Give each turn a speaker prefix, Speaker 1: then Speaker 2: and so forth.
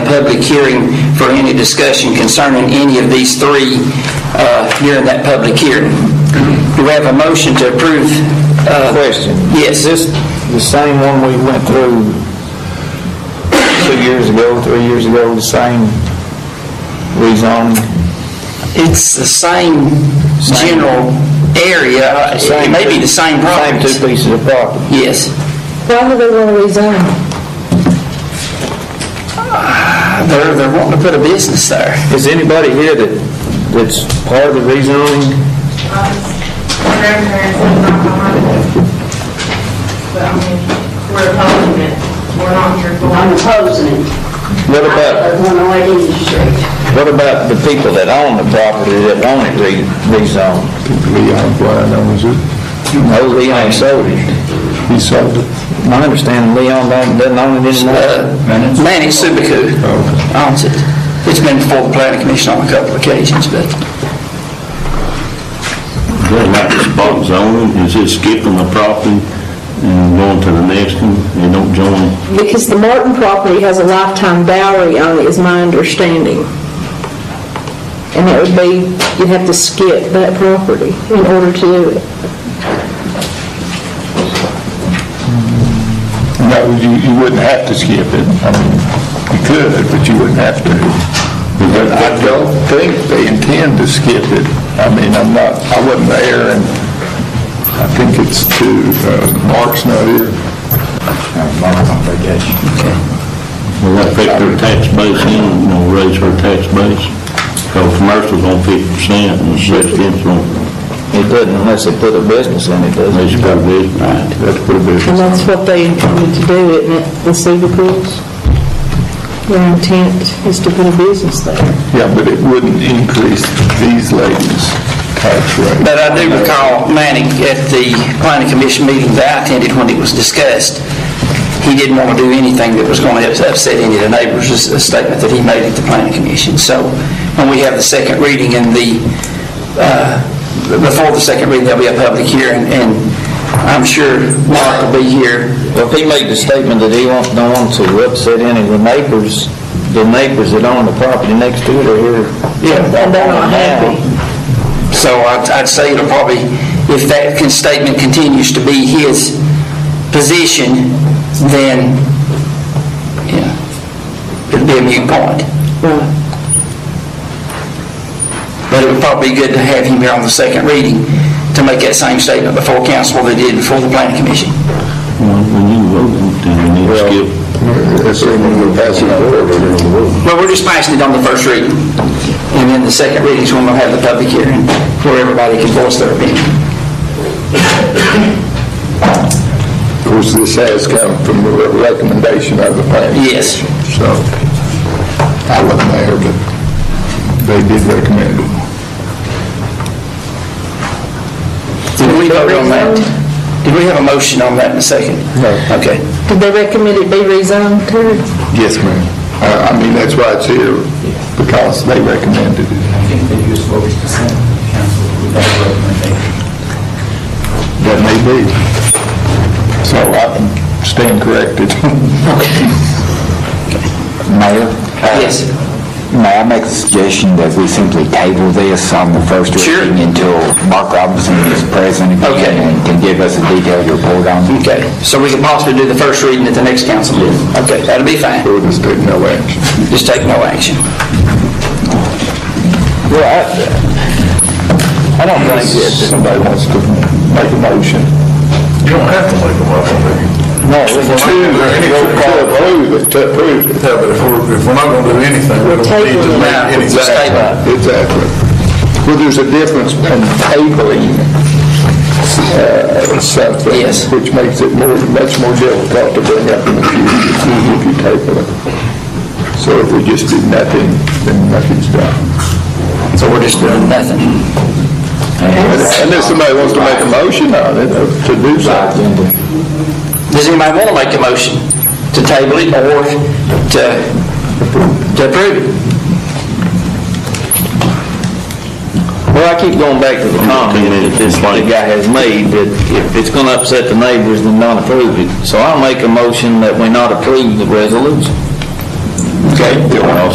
Speaker 1: public hearing for any discussion concerning any of these three uh, during that public hearing. Do we have a motion to approve? uh,
Speaker 2: Question.
Speaker 1: Yes.
Speaker 2: Is this the same one we went through two years ago, three years ago, the same rezoning?
Speaker 1: It's the same general area. It may be the same
Speaker 2: Uh, Same
Speaker 1: properties.
Speaker 2: two pieces of property.
Speaker 1: Yes.
Speaker 3: Why do they want to resign?
Speaker 1: They're, they're wanting to put a business there.
Speaker 2: Is anybody here that, that's part of the rezoning?
Speaker 4: grandparents are not behind it. But I mean, we're opposing it. We're not here for
Speaker 5: I'm opposing it.
Speaker 2: What about,
Speaker 5: I'm going to East Street.
Speaker 2: what about the people that own the property that want it re- rezoned?
Speaker 6: Leon Bryant owns it.
Speaker 2: No, Leon sold it.
Speaker 6: He sold it.
Speaker 2: My understanding, Leon don't- doesn't own it anymore.
Speaker 1: Uh, Manny Subicu owns it. It's been before the planning commission on a couple of occasions, but
Speaker 7: They're not just spot zoning, it's just skipping the property and going to the next one, they don't join.
Speaker 3: Because the Martin property has a lifetime boundary on it, is my understanding. And that would be, you'd have to skip that property in order to do it.
Speaker 6: No, you, you wouldn't have to skip it. I mean, you could, but you wouldn't have to. But I don't think they intend to skip it. I mean, I'm not, I wasn't there, and I think it's to, uh, Mark's not here. Mark's on vacation.
Speaker 7: Will that affect their tax base in, you know, raise their tax base? Because commercial's on fifty percent and residential on,
Speaker 2: It doesn't unless they put a business in it, does it?
Speaker 7: they should have business. That's pretty
Speaker 3: And
Speaker 7: business.
Speaker 3: that's what they intended to do, isn't it, the Cubicles? Their intent is to put a business there.
Speaker 6: Yeah, but it wouldn't increase these ladies' tax rate.
Speaker 1: But I do recall Manning at the planning commission meeting that I attended when it was discussed, he didn't want to do anything that was going to upset any of the neighbors, is a statement that he made at the planning commission. So when we have the second reading and the, uh, before the second reading, there'll be a public hearing, and I'm sure Mark will be here.
Speaker 2: Well, if he made the statement that he won't, don't want to upset any of the neighbors, the neighbors that own the property next to it are here.
Speaker 1: Yeah,
Speaker 3: and they're not happy.
Speaker 1: So I'd I'd say it'll probably, if that con- statement continues to be his position, then, yeah, it'll be a moot point. But it would probably be good to have him here on the second reading to make that same statement before council that he did before the planning commission.
Speaker 7: Well, When you vote, then you need to skip.
Speaker 6: That's the one we're passing over.
Speaker 1: Well, we're just passing it on the first reading, and then the second reading's when we'll have the public hearing where everybody can voice their opinion.
Speaker 6: Of course, this has come from the recommendation of the planning.
Speaker 1: Yes.
Speaker 6: So, I wasn't there, but they did recommend it.
Speaker 1: Did we vote on that? Did we have a motion on that in a second?
Speaker 6: No.
Speaker 1: Okay.
Speaker 3: Did they recommend it be rezoned, Terry?
Speaker 6: Yes, ma'am. I, I mean, that's why it's here, because they recommended it. I think they used what was council That may be. So I can stand corrected.
Speaker 8: Mayor?
Speaker 1: Yes.
Speaker 8: May I make a suggestion that we simply table this on the first
Speaker 1: Sure.
Speaker 8: reading until Mark Robinson is present
Speaker 1: Okay.
Speaker 8: again and can give us a detailed report on it?
Speaker 1: Okay. So we could possibly do the first reading at the next council meeting? Okay, that'll be fine.
Speaker 6: Ordinance took no action.
Speaker 1: Just take no action.
Speaker 2: Well, I, I don't think that,
Speaker 6: Somebody wants to make a motion. You don't have to make a motion.
Speaker 2: no, it was
Speaker 6: To approve it, to approve it. Yeah, but if we're, if we're not gonna do anything, we don't
Speaker 3: need to
Speaker 1: make any-
Speaker 6: Exactly, exactly. Well, there's a difference in tabling uh, something.
Speaker 1: Yes.
Speaker 6: Which makes it more, much more difficult to bring up in the future if you table it. So if we just do nothing, then nothing's done.
Speaker 1: So we're just doing nothing.
Speaker 6: Unless somebody wants to make a motion on it, uh, to do something.
Speaker 1: Does anybody want to make a motion to table it or to to approve it?
Speaker 2: Well, I keep going back to the comment that this the guy has made, that if it's gonna upset the neighbors, then not approve it. So I'll make a motion that we not approve the resolution.
Speaker 9: Okay.
Speaker 1: Well,